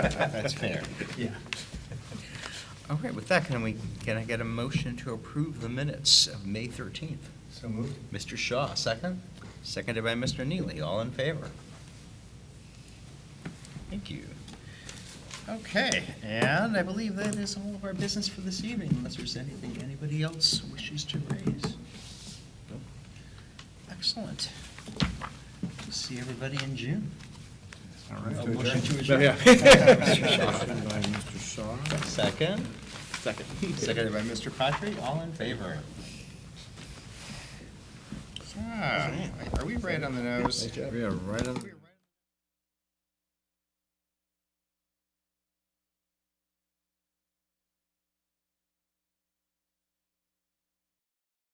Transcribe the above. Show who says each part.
Speaker 1: That's fair.
Speaker 2: Yeah.
Speaker 1: All right, with that, can we, can I get a motion to approve the minutes of May 13th?
Speaker 2: So moved.
Speaker 1: Mr. Shaw, second? Seconded by Mr. Neely, all in favor? Thank you. Okay, and I believe that is all of our business for this evening, unless there's anything anybody else wishes to raise. Nope. Excellent. See everybody in June.
Speaker 2: All
Speaker 1: A
Speaker 2: right.
Speaker 1: Oh, motion to adjourn.
Speaker 2: Motion by Mr. Shaw.
Speaker 1: Second? Second. Seconded by Mr. Patry, all in favor? Ah, Are we right on the nose?
Speaker 2: We are right on.